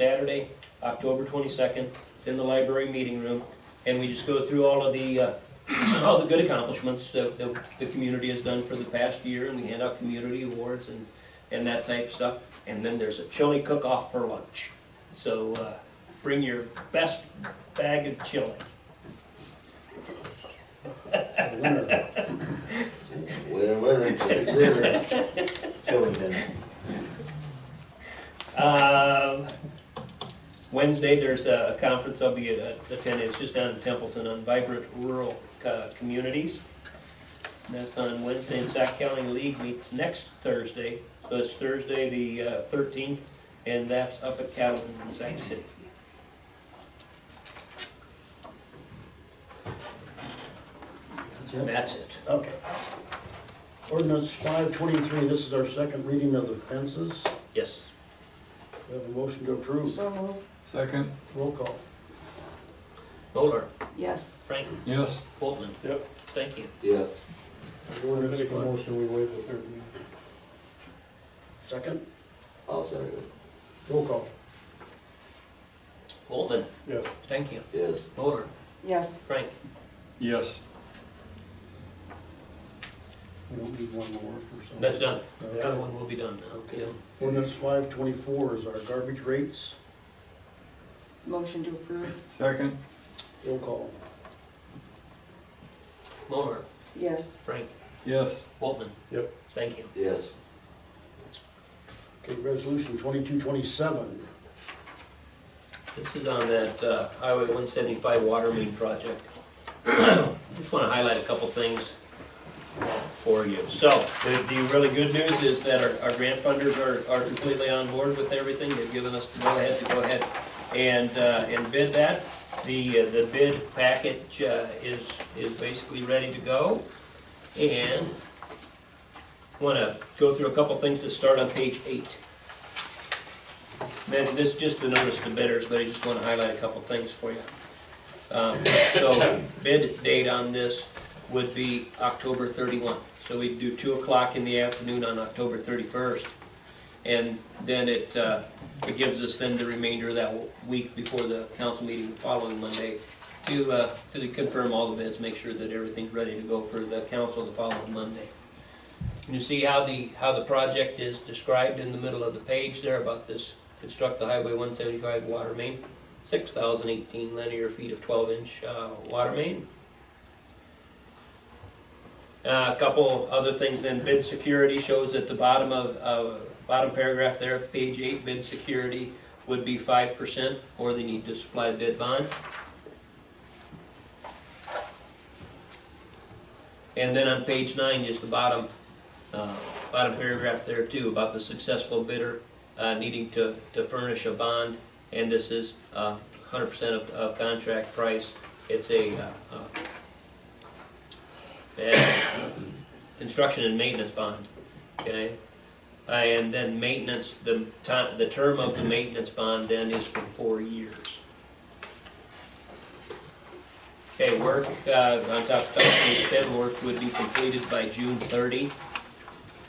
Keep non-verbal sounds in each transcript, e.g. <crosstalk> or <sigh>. Saturday, October twenty-second, it's in the library meeting room, and we just go through all of the, uh, <clears throat> all the good accomplishments that, that the community has done for the past year, and we hand out community awards and, and that type of stuff, and then there's a chili cook-off for lunch. So, uh, bring your best bag of chili. Winter, Winter, winter, winter, chilly then. Um, Wednesday, there's a a conference I'll be uh, attending, it's just down in Templeton on vibrant rural uh, communities. And that's on Wednesday, and Sac County League meets next Thursday, so it's Thursday, the uh, thirteenth, and that's up at Cattleton in Sac City. That's it? That's it. Okay. Ordinance five twenty-three, this is our second reading of the fences. Yes. We have a motion to approve. Second, Roll call. Bowler, Yes, Frank, yes. Boltman. Yep. Thank you. yeah, The ordinance Make a for- motion, we waive the third reading. Second, I'll second it, roll call. Boltman, Yes, thank you. yes, Bowler, yes, Frank. Yes. We don't need one more for some. That's done. The other Okay. one will be done now. Okay. Ordinance five twenty-four is our garbage rates. motion to approve, Second, Roll call. Bowler, yes, Frank, yes. Boltman. Yep. Thank you. yes, Okay, resolution twenty-two twenty-seven. This is on that uh, Highway 175 water main project. <clears throat> Just want to highlight a couple things for you. So, the, the really good news is that our, our grant funders are, are completely on board with everything. They've given us the go-ahead to go ahead and, uh, and bid that. The, uh, the bid package uh, is, is basically ready to go. And want to go through a couple things that start on page eight. Then this is just the notice to bidders, but I just want to highlight a couple things for you. Um, So bid date on this would be October 31. So we'd do 2 o'clock in the afternoon on October 31st. And then it, uh, it gives us then the remainder of that week before the council meeting the following Monday to, uh, to confirm all the bids, make sure that everything's ready to go for the council the following Monday. And You see how the, how the project is described in the middle of the page there about this, construct the Highway one seventy-five water main, six thousand eighteen linear feet of twelve inch, uh, water main. Uh, a couple other things then, bid security shows at the bottom of, of, bottom paragraph there, page eight, bid security would be five percent, or they need to supply bid bond. And then on page nine, just the bottom, uh, bottom paragraph there too, about the successful bidder uh, needing to, to furnish a bond, and this is uh, hundred percent of, of contract price. It's a, uh, uh, a construction and maintenance bond, okay? Uh, And then maintenance, the time, the term of the maintenance bond then is for four years. Okay, work, uh, on top of page ten, work would be completed by June thirty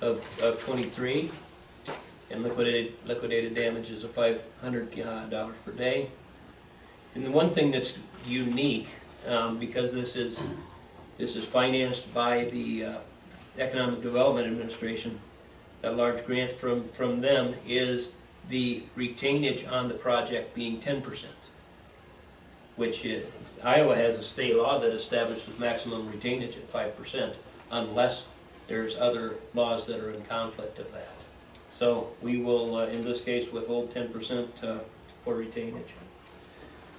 of, of twenty-three. And liquidated, liquidated damages of five hundred uh, dollars per day. And the one thing that's unique, um, because this is, this is financed by the, uh, Economic Development Administration, that large grant from, from them, is the retainage on the project being ten percent which is, Iowa has a state law that establishes maximum retainage at five percent unless there's other laws that are in conflict of that. So we will, uh, in this case, withhold ten percent uh, for retainage.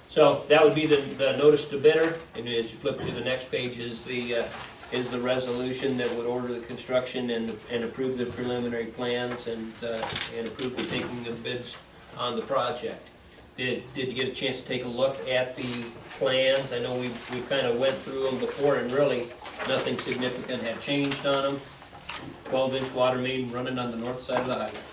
So that would be the, the notice to bidder, and as you flip to the next page is the, uh, is the resolution that would order the construction and, and approve the preliminary plans and, uh, and approve the taking of bids on the project. Did, did you get a chance to take a look at the plans? I know we, we kind of went through them before and really nothing significant had changed on them. Twelve inch water main running on the north side of the highway.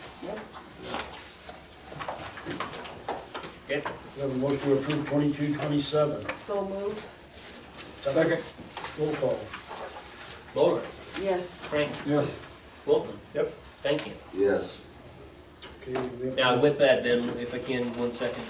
yep, Okay? We have a motion to approve twenty-two twenty-seven. so move, Second, Roll call. Bowler, yes, Frank, yes. Boltman, yep, thank you. yes, Okay, we have- Now, with that then, if I can, one second,